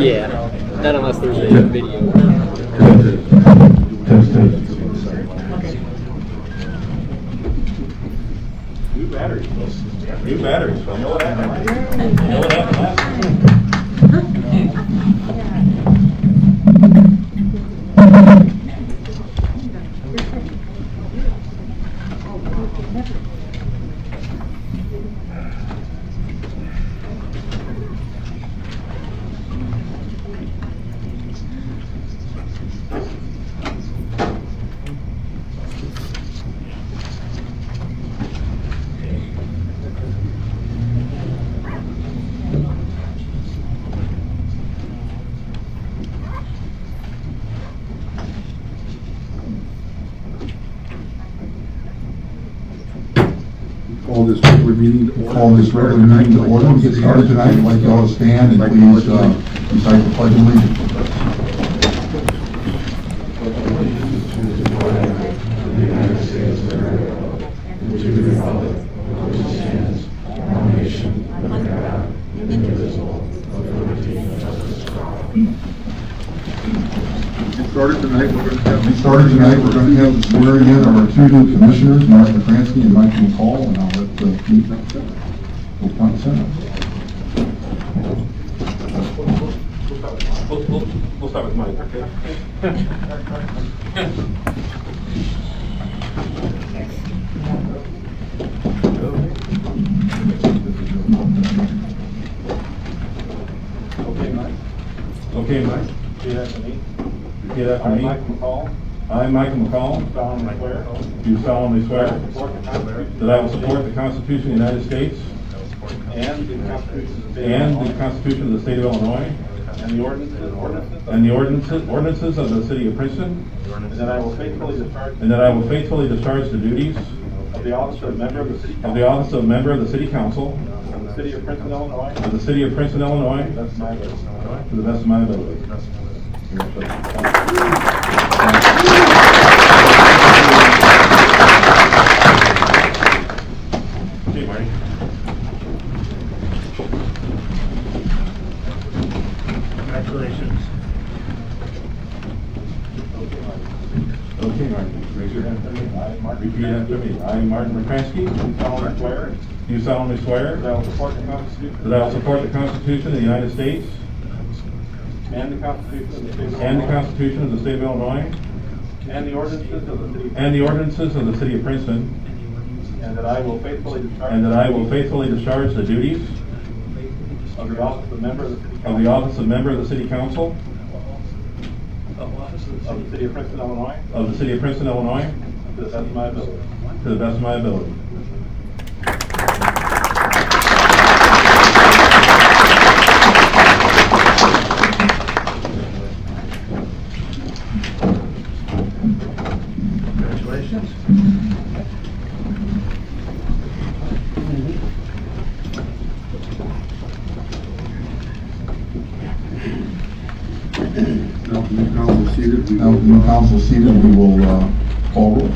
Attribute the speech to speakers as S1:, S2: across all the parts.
S1: Yeah, not unless there's a video.
S2: New batteries, new batteries. You know what happened? You know what happened?
S3: Call this regular meeting to order. Call this regular meeting to order. We'll Get started tonight. Like y'all to stand and please uh, recite the pledge of allegiance. Started tonight, we're going to have. Started tonight, we're going to have the swearing in of our two new commissioners, Mark McCransky and Mike McCall, and I'll let the Oh, chief will point us out.
S2: We'll, we'll, we'll start with Mike, okay? Okay, Mike. Okay, Mike.
S4: Repeat after me.
S2: Repeat after
S4: I,
S2: me.
S4: Mike McCall,
S2: I, Michael McCall,
S4: solemnly swear that
S2: do solemnly
S4: I
S2: swear
S4: will support the Constitution
S2: that I will support the Constitution of the United States
S4: and the Constitution of the State
S2: and the Constitution of the State of
S4: of Illinois
S2: Illinois
S4: and the ordinances and ordinances
S2: and the ordinances ordinances of the City of Princeton,
S4: and that I will faithfully discharge
S2: and that I will faithfully discharge the duties
S4: of the office of member of the city
S2: of the
S4: council
S2: office of member of the City Council
S4: of the city of Princeton, Illinois.
S2: of the City of Princeton, Illinois,
S4: That's my vote.
S2: to the best of my ability.
S4: Okay, Marty. Congratulations.
S2: Okay, Martin, raise your hand for me.
S4: I, Mark
S2: Repeat after me. I, Martin McCrankey,
S4: solemnly swear
S2: do solemnly swear
S4: that I will support the Constitution
S2: that I will support the Constitution of the United States
S4: and the Constitution of the State of Illinois
S2: and the Constitution of the State of Illinois
S4: and the
S2: and the ordinances
S4: ordinances of the city of
S2: of the City of Princeton,
S4: And that I will faithfully discharge.
S2: and that I will faithfully discharge the duties
S4: Of the office of member of the city
S2: of the
S4: council.
S2: office of member of the City Council
S4: Of the city of Princeton, Illinois.
S2: of the City of Princeton, Illinois,
S4: To the best of my ability.
S2: to the best of my ability.
S4: Congratulations.
S3: Now, the new council seated. Now, the new council seated, we will uh, call roll.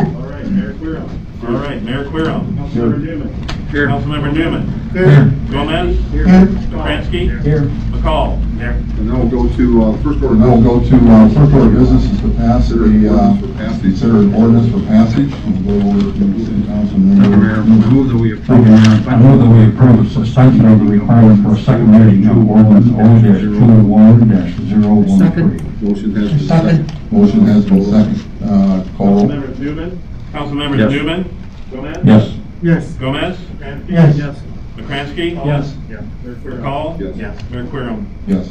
S4: All right, Mayor Querom.
S2: All right, Mayor Querom.
S4: Councilmember Newman.
S2: Councilmember Newman.
S3: Here.
S2: Gomez. McCrankey.
S3: Here.
S2: McCall. Here.
S3: And now we'll go to, uh, first order. Now we'll go to, uh, first order of business is to pass the, uh, consider an ordinance for passage. We'll go over to city council.
S5: Madam Mayor, I move that we
S6: Thank
S5: approve.
S6: you, Mayor. I move that we approve the suspension of the requirement for a second reading of ordinance O dash two one dash zero one three.
S5: Motion has been
S7: Second.
S5: seconded.
S3: Motion has been seconded. Uh, call roll.
S4: Councilmember Newman.
S2: Councilmember
S5: Yes.
S2: Newman.
S4: Gomez.
S6: Yes.
S7: Yes.
S2: Gomez.
S4: Kransky?
S7: Yes.
S2: McCransky.
S6: Yes.
S4: Yeah. Mayor Querom.
S2: McCall.
S5: Yes.
S2: Mayor Querom.
S3: Yes.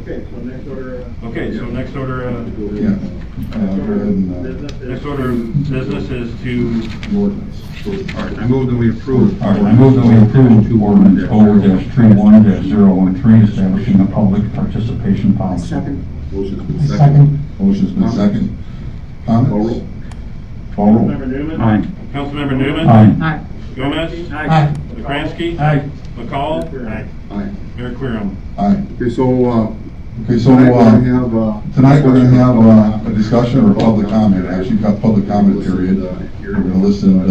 S4: Okay, so next order, uh,
S2: Okay, so next order, uh,
S3: Yeah. Uh, go ahead and, uh,
S4: business is.
S2: next order of business is to,
S3: the ordinance.
S5: All right, I move that we approve.
S6: All right, I move that we approve two ordinance O dash three one dash zero one three, establishing a public participation policy.
S5: Motion has been seconded.
S3: Motion's been seconded.
S5: Call
S3: Comments?
S5: roll.
S3: Call roll.
S4: Councilmember Newman.
S2: Councilmember Newman.
S6: Aye.
S7: Aye.
S2: Gomez.
S7: Aye.
S2: McCransky.
S6: Aye.
S2: McCall.
S4: Aye.
S5: Aye.
S2: Mayor Querom.
S3: Aye.
S5: Okay, so, uh,
S3: Okay, so,
S5: tonight we're
S3: uh,
S5: gonna have, uh.
S3: Tonight, we're uh, gonna have uh, a discussion or public comment, actually, we've got public comment period. We're gonna listen